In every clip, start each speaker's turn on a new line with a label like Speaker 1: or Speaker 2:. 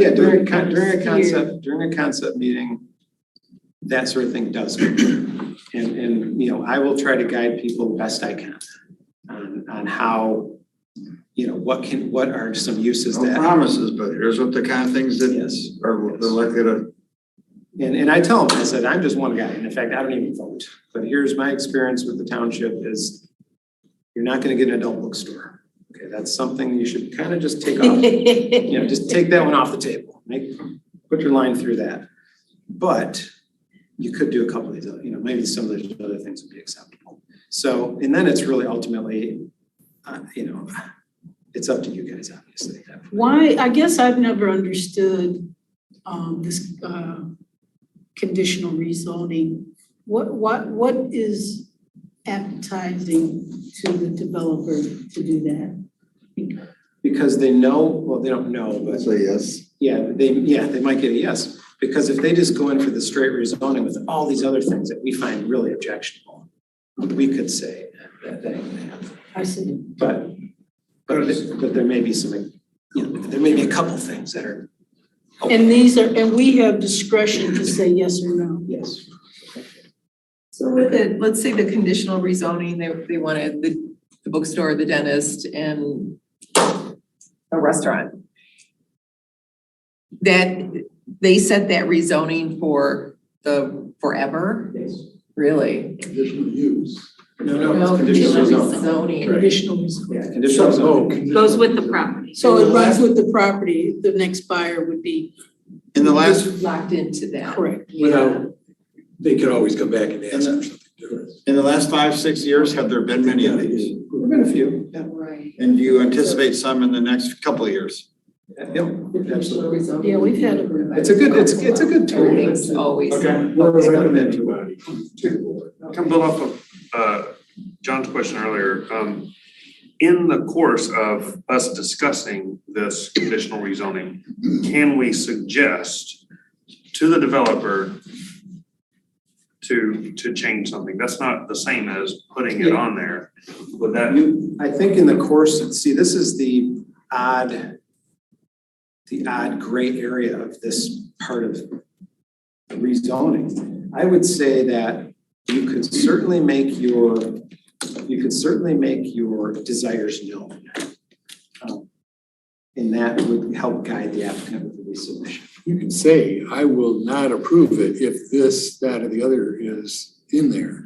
Speaker 1: Yeah, during, a con-
Speaker 2: Very
Speaker 1: during a
Speaker 2: skewed.
Speaker 1: concept, during a concept meeting, that sort of thing does. come up. And, and, you know, I will try to guide people best I can on, on how, you know, what can, what are some uses
Speaker 3: No
Speaker 1: that,
Speaker 3: promises, but here's what the kind of things that
Speaker 1: yes.
Speaker 3: are they're likely to,
Speaker 1: And, and I tell them, I said, I'm just one guy, and in fact, I don't even vote, but here's my experience with the township is you're not gonna get an adult bookstore. Okay, that's something you should kind of just take off you know, just take that one off the table, make, put your line through that. But you could do a couple of these, other- you know, maybe some of those other things would be acceptable. So, and then it's really ultimately, uh, you know, it's up to you guys, obviously. at that point.
Speaker 2: Why, I guess I've never understood um this uh conditional rezoning. What what what is appetizing to the developer to do that?
Speaker 1: Because they know, well, they don't know, but
Speaker 3: say yes.
Speaker 1: yeah, they, yeah, they might get a yes. Because if they just go in for the straight rezoning with all these other things that we find really objectionable, we could say that, that ain't gonna happen.
Speaker 2: I said,
Speaker 1: But, but, th- but there may be some, you know, there may be a couple things that are,
Speaker 2: and these are, and we have discretion to say yes or no.
Speaker 1: yes.
Speaker 4: So with the, let's say the conditional rezoning, they, they wanted the, the bookstore, the dentist, and a restaurant. That, they set that rezoning for the forever, really?
Speaker 5: Conditional use.
Speaker 1: No, no, it's conditional rezoning.
Speaker 4: rezoning.
Speaker 2: Conditional rezoning.
Speaker 1: Yeah, conditional rezoning.
Speaker 6: Goes with the property.
Speaker 2: So it runs with the property, the next buyer would be
Speaker 3: In the last,
Speaker 4: Just Locked into that.
Speaker 2: correct.
Speaker 4: Yeah.
Speaker 5: They could always come back and ask
Speaker 3: And
Speaker 5: for something different.
Speaker 3: in the last five, six years, have there been many of these?
Speaker 1: There've been a few, yeah,
Speaker 4: Right.
Speaker 3: And do you anticipate some in the next couple of years?
Speaker 1: yep, absolutely.
Speaker 2: Yeah, we've had
Speaker 1: It's a good, it's, it's a good tool.
Speaker 4: Everything's always.
Speaker 1: We're recommending.
Speaker 5: Everybody to the board.
Speaker 7: Can build off of uh John's question earlier, um in the course of us discussing this conditional rezoning, can we suggest to the developer to to change something? That's not the same as putting it on there, would that?
Speaker 1: You, I think in the course, see, this is the odd, the odd gray area of this part of rezoning. I would say that you could certainly make your, you could certainly make your desires known. Um, And that would help guide the applicant with the resubmission.
Speaker 5: You can say, I will not approve it if this, that, or the other is in there.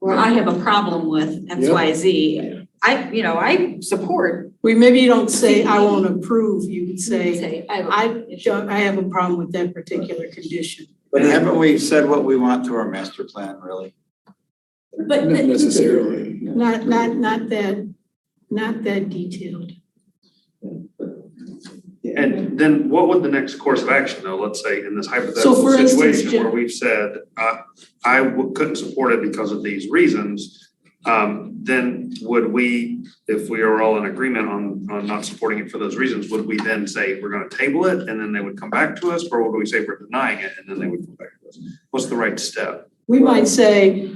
Speaker 6: Or I have a problem with X, Y, Z. I, you know, I support.
Speaker 2: We maybe you don't say, I won't approve, you would say,
Speaker 6: I,
Speaker 2: I don't, I have a problem with that particular condition.
Speaker 3: But haven't we said what we want to our master plan, really?
Speaker 6: but,
Speaker 5: Not
Speaker 6: the-
Speaker 5: necessarily.
Speaker 2: Not, not, not that, not that detailed.
Speaker 7: And then what would the next course of action though, let's say in this
Speaker 2: So,
Speaker 7: hypothetical
Speaker 2: for instance,
Speaker 7: situation where
Speaker 2: Jim-
Speaker 7: we've said, uh, I w- couldn't support it because of these reasons. Um, then would we, if we are all in agreement on, on not supporting it for those reasons, would we then say we're gonna table it and then they would come back to us? Or would we say we're denying it and then they would come back to us? What's the right step?
Speaker 2: We might say,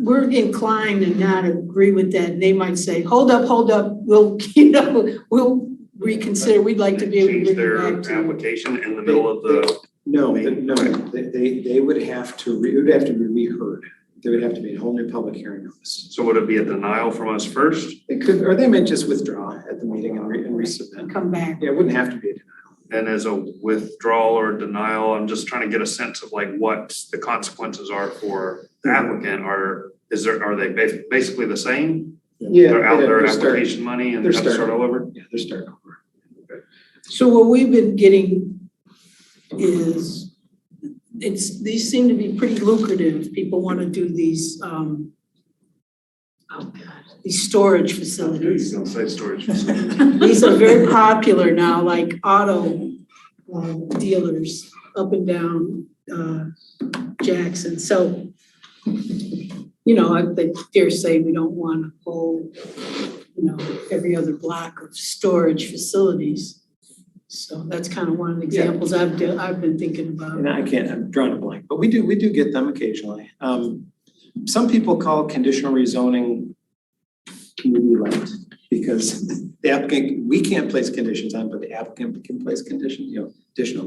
Speaker 2: we're inclined to not agree with that, and they might say, hold up, hold up, we'll, you know, we'll reconsider, we'd like to be able to
Speaker 7: Change
Speaker 2: bring it
Speaker 7: their
Speaker 2: back to.
Speaker 7: application in the middle of the,
Speaker 1: No, the- no, they, they, they would have to, re- it would have to be reheard. There would have to be a whole new public hearing notice.
Speaker 7: so would it be a denial from us first?
Speaker 1: They could, or they may just withdraw at the meeting and re, and resubmit.
Speaker 2: Come back,
Speaker 1: Yeah, it wouldn't have to be a denial.
Speaker 7: and as a withdrawal or denial, I'm just trying to get a sense of like what the consequences are for the
Speaker 1: Mm-hmm.
Speaker 7: applicant, are, is there, are they bas- basically the same?
Speaker 1: Yeah.
Speaker 7: They're out
Speaker 1: they'd have
Speaker 7: their
Speaker 1: to start-
Speaker 7: application money and
Speaker 1: they're
Speaker 7: have to start all over?
Speaker 1: Yeah, they're starting over.
Speaker 2: so what we've been getting is, it's, these seem to be pretty lucrative, people wanna do these, um, oh God, these storage facilities.
Speaker 7: Don't say storage facility.
Speaker 2: These are very popular now, like auto uh, dealers up and down uh, Jackson. So, you know, I I dare say we don't want a whole, you know, every other block of storage facilities. So that's kind of one of the
Speaker 1: Yeah.
Speaker 2: examples I've, de- I've been thinking about.
Speaker 1: And I can't, I'm drawing a blank, but we do, we do get them occasionally. Um, some people call conditional rezoning community light. Because the applicant, we can't place conditions on, but the applicant can place conditions, you know, additional